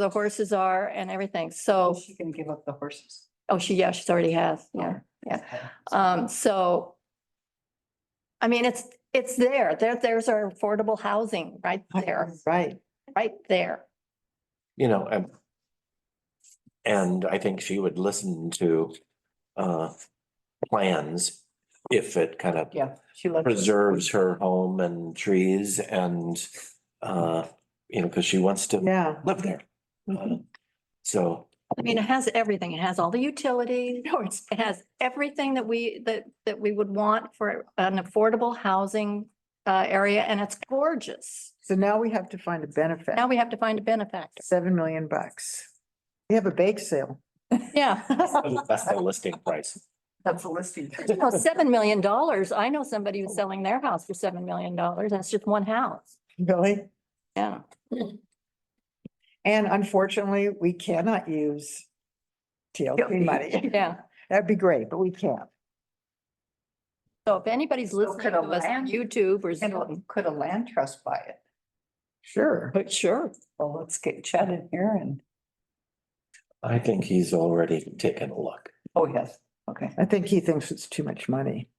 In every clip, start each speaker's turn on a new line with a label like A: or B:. A: the horses are and everything. So,
B: Oh, She can give up the horses.
A: oh, she, yeah, she's already has, yeah. Yeah.
B: Okay.
A: Um, so I mean, it's, it's there. There, there's our affordable housing right there,
B: Right.
A: right there.
C: you know, and. And I think she would listen to uh plans if it kind of
B: Yeah, she loves.
C: preserves her home and trees and uh, you know, because she wants to
B: Yeah.
C: live there. Uh, So,
A: I mean, it has everything. It has all the utilities, you know, it's- it has everything that we, that, that we would want for an affordable housing uh, area and it's gorgeous.
D: So now we have to find a benefit,
A: Now we have to find a benefactor.
D: seven million bucks. We have a bake sale.
A: Yeah.
C: that's the listing price.
B: That's a listing.
A: No, seven million dollars. I know somebody who's selling their house for seven million dollars. That's just one house.
D: Really?
A: Yeah.
D: And unfortunately, we cannot use TLC money.
A: Yeah.
D: That'd be great, but we can't.
A: So if anybody's listening
B: could
A: to
B: a
A: us on
B: land-
A: YouTube or
B: And
A: Zoom.
B: Could a land trust buy it?
D: Sure.
A: But sure.
B: Well, let's get Chad in here and,
C: I think he's already taken a look.
B: oh, yes, okay.
D: I think he thinks it's too much money.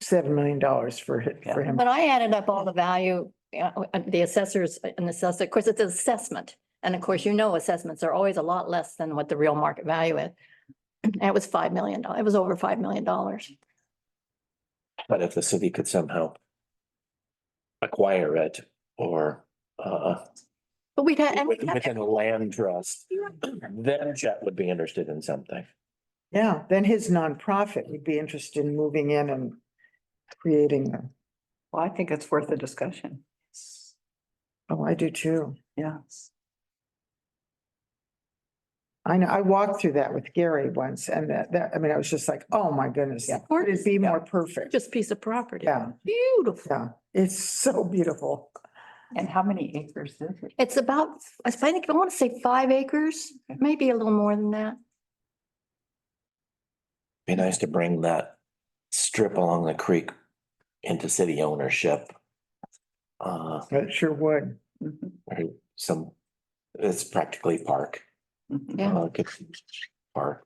D: Seven million dollars for him, for him.
A: But I added up all the value, uh, uh, the assessors and assessor, of course, it's an assessment. And of course, you know, assessments are always a lot less than what the real market value is. And it was five million, dollars. it was over five million dollars.
C: But if the city could somehow acquire it or uh
A: But we'd had, and we
C: with-
A: had
C: within a land trust, then Chet would be interested in something.
D: Yeah, then his nonprofit would be interested in moving in and creating them.
B: Well, I think it's worth a discussion.
D: Oh, I do too.
B: Yes.
D: I know, I walked through that with Gary once and that, that, I mean, I was just like, oh my goodness,
B: Yeah.
D: could it be more
B: Yeah.
D: perfect?
A: just piece of property.
D: Yeah,
A: Beautiful.
D: yeah, it's so beautiful.
B: And how many acres is it?
A: It's about, I think, I want to say five acres, maybe a little more than that.
C: Be nice to bring that strip along the creek into city ownership. Uh,
D: It sure would.
B: Mhm,
C: or some, it's practically park.
B: mhm.
A: Yeah.
C: uh, could- Park,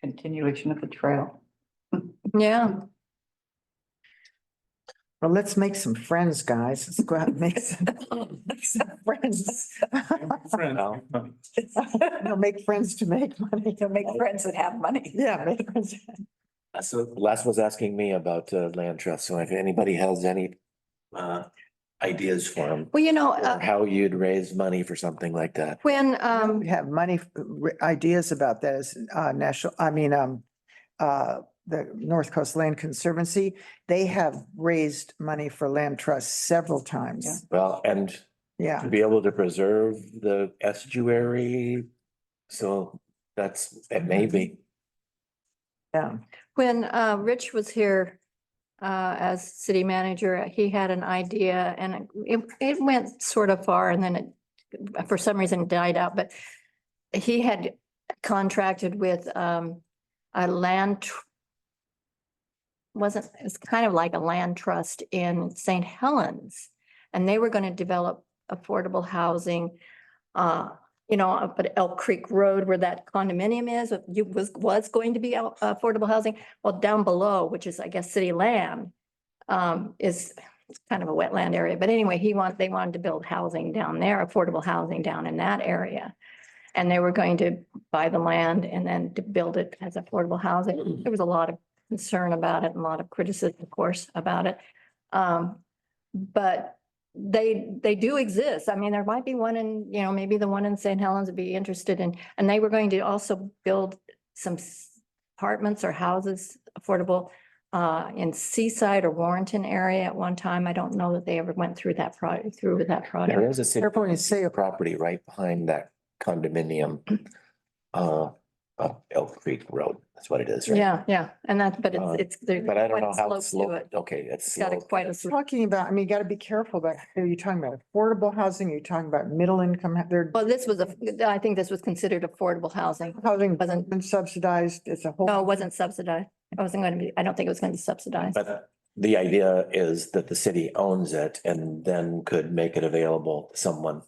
B: Continuation of the trail.
A: Yeah.
D: Well, let's make some friends, guys. Let's go out and make some make some friends.
C: No.
D: You'll make friends to make money.
B: You'll make friends that have money.
D: Yeah, make friends.
C: So Les was asking me about uh, land trust, so if anybody has any uh, ideas for him.
A: Well, you know,
C: Or
A: uh,
C: how you'd raise money for something like that.
A: when, um.
D: We have money, uh, ideas about that as uh, national, I mean, um, uh, the North Coast Land Conservancy. They have raised money for land trusts several times.
C: Well, and
D: Yeah,
C: to be able to preserve the estuary. So that's, it may be.
D: yeah.
A: When uh, Rich was here uh, as city manager, he had an idea and it, it went sort of far and then it, for some reason died out, but he had contracted with um, a land tr- wasn't, it's kind of like a land trust in St. Helens. And they were going to develop affordable housing, uh, you know, up at Elk Creek Road where that condominium is, you was, was going to be out- affordable housing. Well, down below, which is, I guess, city land, um, is it's kind of a wetland area. But anyway, he want, they wanted to build housing down there, affordable housing down in that area. And they were going to buy the land and then to build it as affordable housing. There was a lot of concern about it and a lot of criticism, of course, about it. Um, but they, they do exist. I mean, there might be one in, you know, maybe the one in St. Helens would be interested in, and they were going to also build some s- apartments or houses affordable uh, in Seaside or Warrenton area at one time. I don't know that they ever went through that project, through with that project.
C: There is a city
D: Airport is safe.
C: property right behind that condominium. Uh, up Elk Creek Road, that's what it is, right?
A: Yeah, yeah, and that, but
C: Uh,
A: it's, it's. there's
C: But I don't
A: quite a
C: know how it's
A: slope to
C: sloped.
A: it.
C: Okay, it's.
A: It's got a
C: sloped.
A: quite a. slope.
D: Talking about, I mean, you got to be careful about, are you talking about affordable housing? Are you talking about middle income? They're
A: Well, this was a, I think this was considered affordable housing.
D: housing
A: Wasn't,
D: been subsidized. It's a whole.
A: no, it wasn't subsidized. It wasn't going to be, I don't think it was going to be subsidized.
C: But the idea is that the city owns it and then could make it available to someone